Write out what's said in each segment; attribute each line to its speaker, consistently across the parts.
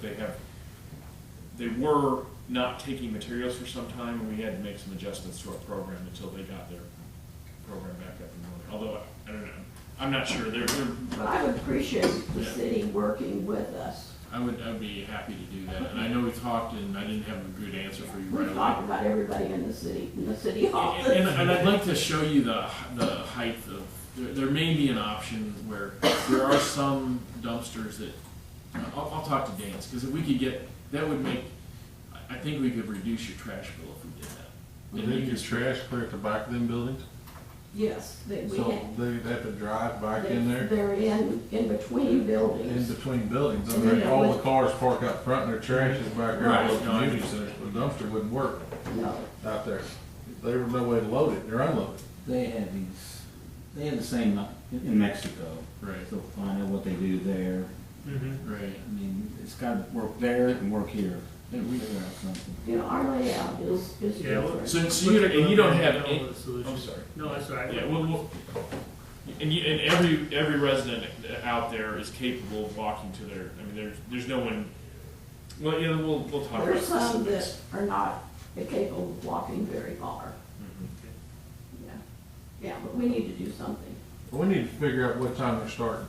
Speaker 1: they have, they were not taking materials for some time, and we had to make some adjustments to our program until they got their program back up and running. Although, I- I don't know, I'm not sure, they're,
Speaker 2: But
Speaker 1: they're,
Speaker 2: I would appreciate the
Speaker 1: Yeah.
Speaker 2: city working with us.
Speaker 1: I would, I'd be happy to do that, and I know we talked, and I didn't have a good answer for you
Speaker 2: We
Speaker 1: right away.
Speaker 2: talk about everybody in the city, in the city hall.
Speaker 1: And, and I'd like to show you the, the height of, there, there may be an option where there are some dumpsters that, uh, I'll, I'll talk to Dan's, cause if we could get, that would make, I, I think we could reduce your trash bill if we did that.
Speaker 3: They
Speaker 1: And
Speaker 3: think
Speaker 1: you
Speaker 3: it's trash clear at the back of them buildings,
Speaker 2: Yes, they, we
Speaker 3: so
Speaker 2: have.
Speaker 3: they have to drive back in there,
Speaker 2: They're in, in between
Speaker 3: in
Speaker 2: buildings.
Speaker 3: between buildings. I
Speaker 2: And then
Speaker 3: mean,
Speaker 2: it
Speaker 3: all the
Speaker 2: would-
Speaker 3: cars park out front and their trash is back there,
Speaker 1: Right,
Speaker 3: all the
Speaker 1: no, I
Speaker 3: community centers, the dumpster wouldn't work
Speaker 2: No,
Speaker 3: out there. There was no way to load it, they're unloaded.
Speaker 4: They have these, they have the same uh, in in Mexico,
Speaker 1: Right,
Speaker 4: so find out what they do there.
Speaker 5: Mm-hmm.
Speaker 1: right.
Speaker 4: I mean, it's gotta work there and work here,
Speaker 1: Yeah, we-
Speaker 4: figure out something.
Speaker 2: you know, our layout is, is
Speaker 5: Yeah, well,
Speaker 2: different.
Speaker 1: So, so you, and you don't have, any- I'm
Speaker 5: I'm
Speaker 1: sorry.
Speaker 5: Oh, No, that's all right.
Speaker 1: Yeah, well, well, and you, and every, every resident out there is capable of walking to their, I mean, there's, there's no one, well, yeah, we'll, we'll talk about
Speaker 2: There's some that
Speaker 1: this.
Speaker 2: are not capable of walking very far.
Speaker 3: Mm-hmm.
Speaker 1: Mhm.
Speaker 2: Yeah, yeah, but we need to do something.
Speaker 3: We need to figure out what time they're starting.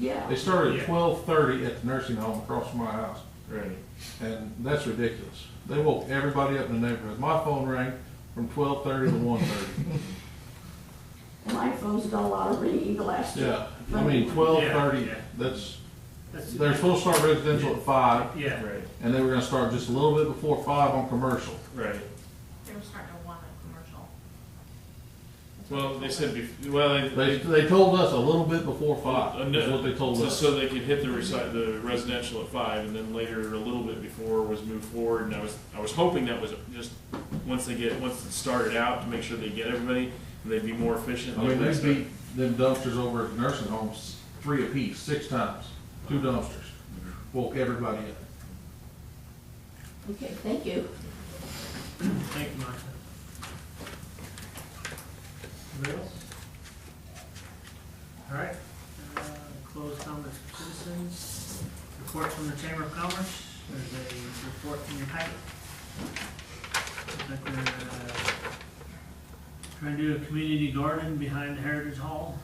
Speaker 3: They
Speaker 2: Yeah,
Speaker 3: started at
Speaker 5: Yeah.
Speaker 3: twelve thirty at the nursing home across from my house,
Speaker 1: Right.
Speaker 3: and that's ridiculous. They woke everybody up in the neighborhood. My phone rang from twelve thirty to one thirty.
Speaker 2: my phone's done a lot of ringing the last.
Speaker 3: Yeah, I mean, twelve thirty,
Speaker 5: Yeah.
Speaker 3: that's,
Speaker 5: That's-
Speaker 3: they're supposed to start residential at five,
Speaker 5: Yeah,
Speaker 1: Right,
Speaker 3: and they were gonna start just a little bit before five on commercial.
Speaker 1: right.
Speaker 6: They were starting to want a commercial.
Speaker 1: Well, they said, bef- well, they,
Speaker 3: They,
Speaker 1: they,
Speaker 3: they told us a little bit before
Speaker 1: Uh,
Speaker 3: five,
Speaker 1: no.
Speaker 3: is what they told
Speaker 1: so,
Speaker 3: us.
Speaker 1: so they could hit the reci- the residential at five, and then later, a little bit before, was moved forward, and I was, I was hoping that was just, once they get, once it started out, to make sure they get everybody, and they'd be more efficient.
Speaker 3: I mean,
Speaker 1: Like,
Speaker 3: they beat them dumpsters over at the nursing homes, three apiece, six times, two dumpsters, woke everybody up.
Speaker 2: Okay, thank you.
Speaker 5: thank you, Martha. Anybody else? All right, uh, closed comments for citizens, report from the Chamber of Commerce, there's a report from your packet. Looks like we're, uh, trying to do a community garden behind the Heritage Hall.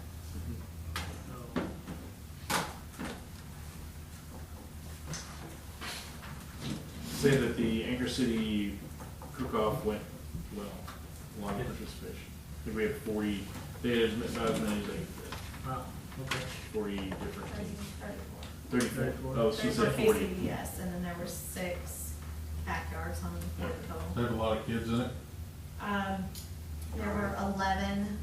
Speaker 5: So,
Speaker 1: Say that the Anchor City cook-off went well, a lot of participation. I think we had forty, they had about as many as like
Speaker 5: wow, okay.
Speaker 1: forty different teams.
Speaker 6: Thirty-four.
Speaker 1: Thirty-four, oh, she said
Speaker 6: Thirty-four
Speaker 1: forty.
Speaker 6: KCBS, and then there were six backyards on Portico.
Speaker 3: They had a lot of kids in it.
Speaker 6: Um, there were eleven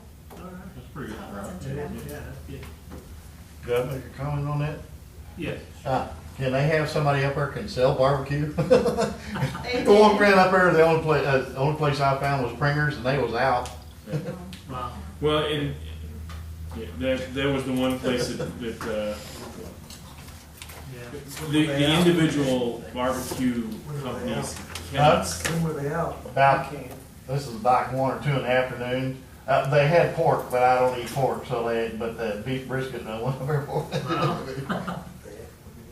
Speaker 5: All right,
Speaker 3: That's pretty
Speaker 6: so it wasn't too
Speaker 5: yeah,
Speaker 6: bad.
Speaker 5: that's good.
Speaker 7: Could I make a comment on that?
Speaker 5: Yes.
Speaker 7: Uh, Can they have somebody up there can sell barbecue? The
Speaker 6: They did.
Speaker 7: one friend up there, the only place, uh, the only place I found was Pringer's and they was out.
Speaker 6: Um,
Speaker 5: Wow.
Speaker 1: Well, and yeah, that, that was the one place that, that uh,
Speaker 5: Yeah.
Speaker 1: the, the individual barbecue companies cannot.
Speaker 8: When were they out?
Speaker 7: About,
Speaker 8: Can't.
Speaker 7: this is like one or two in the afternoon. Uh, they had pork, but I don't eat pork, so they, but the beef brisket, no one ever bought
Speaker 5: Wow.
Speaker 7: it.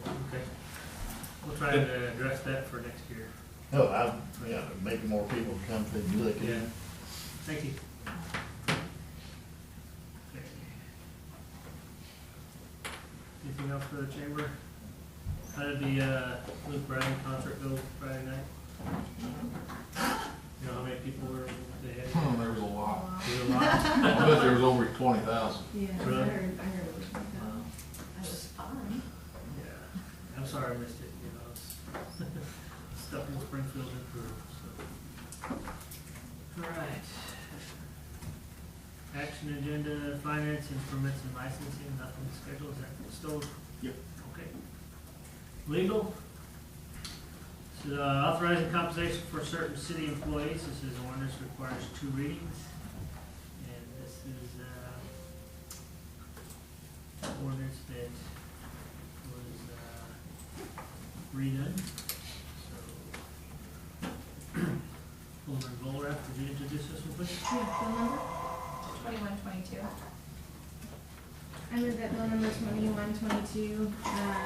Speaker 5: Okay. We'll try to address that for next year.
Speaker 7: No, I, yeah, maybe more people come to look at
Speaker 5: Yeah.
Speaker 7: it.
Speaker 5: Thank you. Anything else for the chamber? How did the, uh, Luke Bryan concert go Friday night? You know how many people were there?
Speaker 3: Hmm, there was a lot.
Speaker 6: wow.
Speaker 5: There were a lot.
Speaker 3: I bet there was over twenty thousand.
Speaker 6: Oh, Yeah, I
Speaker 5: Really?
Speaker 6: heard, I heard it was,
Speaker 5: Wow.
Speaker 6: that was fun.
Speaker 5: Yeah, I'm sorry I missed it, you know, it's stuff in Springfield and Peru, so. All right. Action agenda, finance and permits and licensing, nothing scheduled, is that still?
Speaker 1: Yep.
Speaker 5: Okay. Legal? So, uh, authorizing compensation for certain city employees, this is an ordinance requires two readings. And this is, uh, ordinance that was uh, redone, so. Alderman Volrath, could you introduce us real quick?
Speaker 9: We have bill number?
Speaker 6: Twenty-one, twenty-two.
Speaker 9: I move that bill number twenty-one twenty-two, uh,